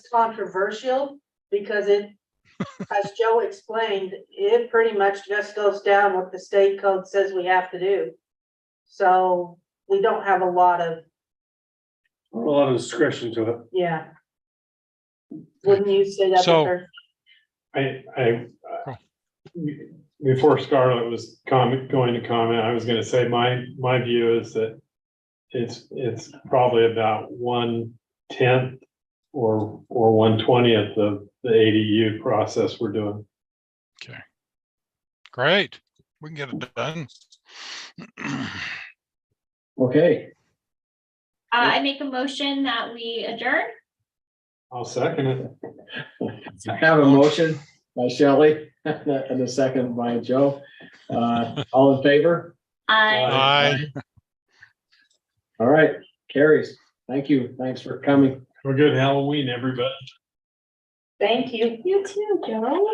controversial because it, as Joe explained, it pretty much just goes down what the state code says we have to do. So we don't have a lot of, A lot of discretion to it. yeah. Wouldn't you say that? So- Victor? I, I, uh, before Scarlett was comment, going to comment, I was gonna say, my, my view is that it's, it's probably about one tenth or, or one twentieth of the ADU process we're doing. Great, we can get it done. Okay, Uh, I make a motion that we adjourn. I'll second it. I have a motion by Shelley and a second by Joe. Uh, all in favor? I, Aye. All right, carries. Thank you. Thanks for coming. Have a good Halloween, everybody. Thank you. you too, Joe.